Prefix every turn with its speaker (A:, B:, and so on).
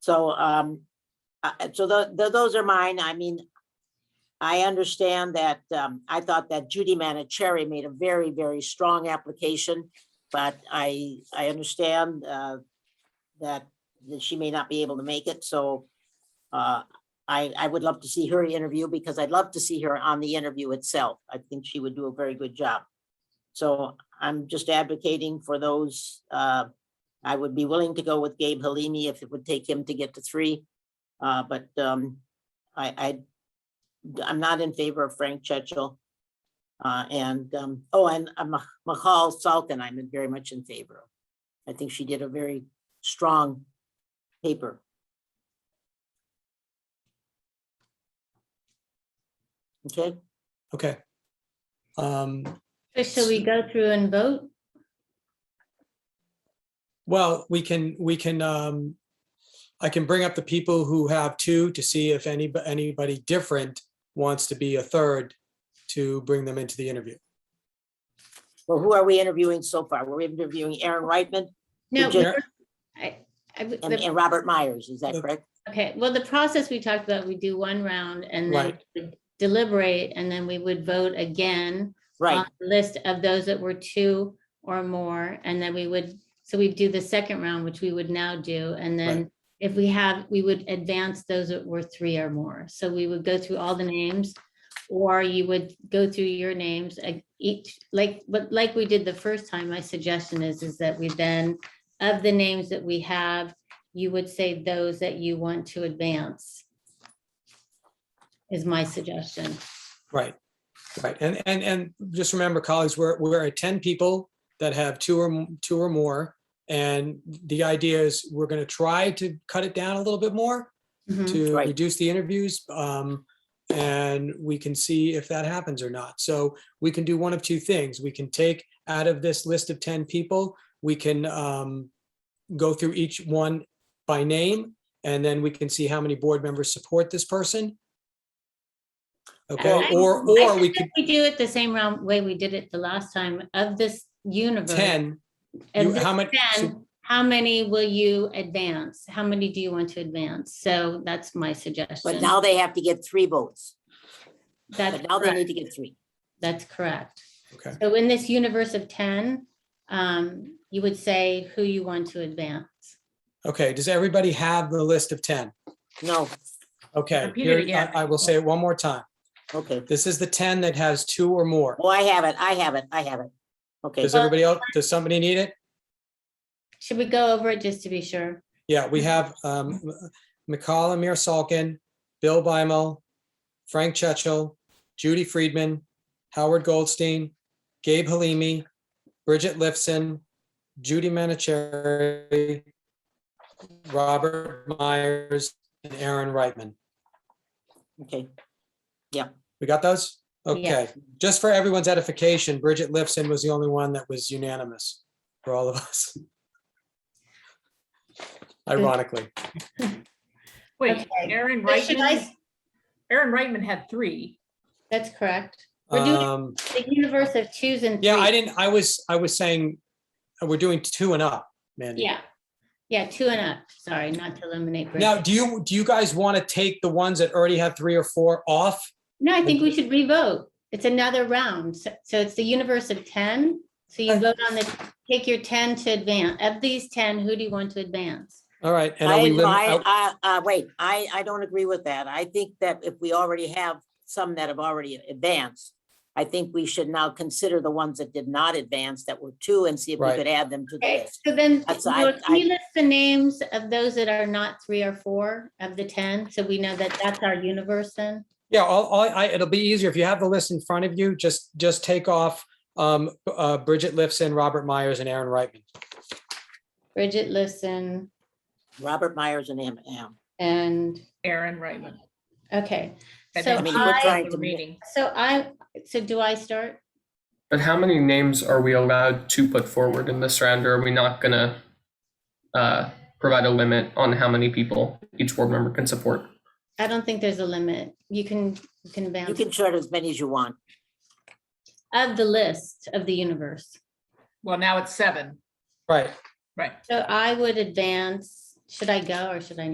A: So, um, uh, so tho- tho- those are mine. I mean, I understand that, um, I thought that Judy Manicherry made a very, very strong application, but I, I understand, uh, that, that she may not be able to make it, so, uh, I, I would love to see her interview because I'd love to see her on the interview itself. I think she would do a very good job. So I'm just advocating for those, uh, I would be willing to go with Gabe Halimi if it would take him to get to three. Uh, but, um, I, I, I'm not in favor of Frank Churchill. Uh, and, um, oh, and uh, Ma- Mahal Salkin, I'm very much in favor of. I think she did a very strong paper. Okay,
B: Okay. Um,
C: So should we go through and vote?
B: well, we can, we can, um, I can bring up the people who have two to see if any, anybody different wants to be a third to bring them into the interview.
A: well, who are we interviewing so far? We're interviewing Aaron Reitman
C: No.
A: Did you-
C: we're- I- I would-
A: and,
C: the-
A: and Robert Myers, is that
B: The-
A: correct?
C: Okay, well, the process we talked about, we do one round and then
B: Right.
C: we deliberate, and then we would vote again
A: Right,
C: on the List of those that were two or more, and then we would, so we do the second round, which we would now do, and then if we have, we would advance those that were three or more. So we would go through all the names, or you would go through your names, uh, each, like, but like we did the first time, my suggestion is, is that we then, of the names that we have, you would say those that you want to advance. Is my suggestion.
B: Right, right. And, and, and just remember, colleagues, we're, we're at ten people that have two or, m- two or more. And the idea is we're going to try to cut it down a little bit more
C: Mhm.
B: to
A: Right.
B: reduce the interviews. um, And we can see if that happens or not. So we can do one of two things. We can take out of this list of 10 people, we can um, go through each one by name, and then we can see how many board members support this person. Okay,
C: I-
B: or,
C: I
B: or we could,
C: suggest We do it the same round way we did it the last time of this universe.
B: 10,
C: of
B: you-
C: this
B: how many-
C: 10, how many will you advance? How many do you want to advance? So that's my
A: but
C: suggestion.
A: now they have to get three votes,
C: That's
A: but now they need
C: correct.
A: to get three.
C: That's correct.
B: okay,
C: So in this universe of ten, um, you would say who you want to advance.
B: okay. Does everybody have the list of 10?
A: No,
B: Okay,
D: Repeat it
B: here,
D: again.
B: I I will say it one more time.
A: okay.
B: This is the 10 that has two or more.
A: Oh, I have it, I have it, I have it. Okay,
B: Does everybody else, does somebody need it?
C: Should we go over it just to be sure?
B: Yeah, we have um, McCall Amir Salkin, Bill Bimel, Frank Chechel, Judy Friedman, Howard Goldstein, Gabe Halimi, Bridget Lifson, Judy Manicherry, Robert Myers, and Aaron Reitman.
A: okay,
B: We got those? Okay, just for everyone's edification, Bridget Lifson was the only one that was unanimous for all of us. Ironically,
D: Wait,
C: Okay.
D: Aaron
C: So should I
D: Reitman,
C: s-
D: Aaron Reitman had three.
C: That's correct. We're doing-
B: um,
C: The universe of twos and
B: Yeah, I
C: threes.
B: didn't, I was, I was saying, uh, we're doing two and up, Mandy.
C: Yeah, yeah, two and up. Sorry, not to eliminate. Bridget.
B: Now, do you, do you guys want to take the ones that already have three or four off?
C: No, I think we should revote. It's another round. So so it's the universe of 10. So you
B: Okay.
C: vote on the, take your 10 to advance. Of these 10, who do you want to advance?
B: All right. and are
A: I,
B: we
A: no,
B: lim-
A: I,
B: uh,
A: I, uh, wait, I, I don't agree with that. I think that if we already have some that have already advanced, I think we should now consider the ones that did not advance that were two and see if we
B: Right.
A: could add them to the
C: Okay,
A: list.
C: so then,
A: That's- I-
C: Will, can you
A: I-
C: list the names of those that are not three or four of the 10? So we know that that's our universe then?
B: Yeah, all, all, I, it'll be easier if you have the list in front of you, just, just take off, um, uh, Bridget Lifson, Robert Myers and Aaron Reitman.
C: Bridget Listen
A: Robert Myers and Am, Am.
C: and,
D: Aaron Reitman.
C: okay.
D: That
C: So
A: I
D: didn't
A: mean,
D: keep
A: we're
D: up
C: I-
A: trying
D: with
A: to
D: the
A: ma-
D: Reading.
C: So I, so do I start?
E: But how many names are we allowed to put forward in this round, or are we not gonna uh, provide a limit on how many people each board member can support?
C: I don't think there's a limit. You can, you can
A: You
C: advance
A: can short as many as you want.
C: of the list of the universe.
D: Well, now it's seven,
B: Right.
D: right?
C: So I would advance, should I go or should I not?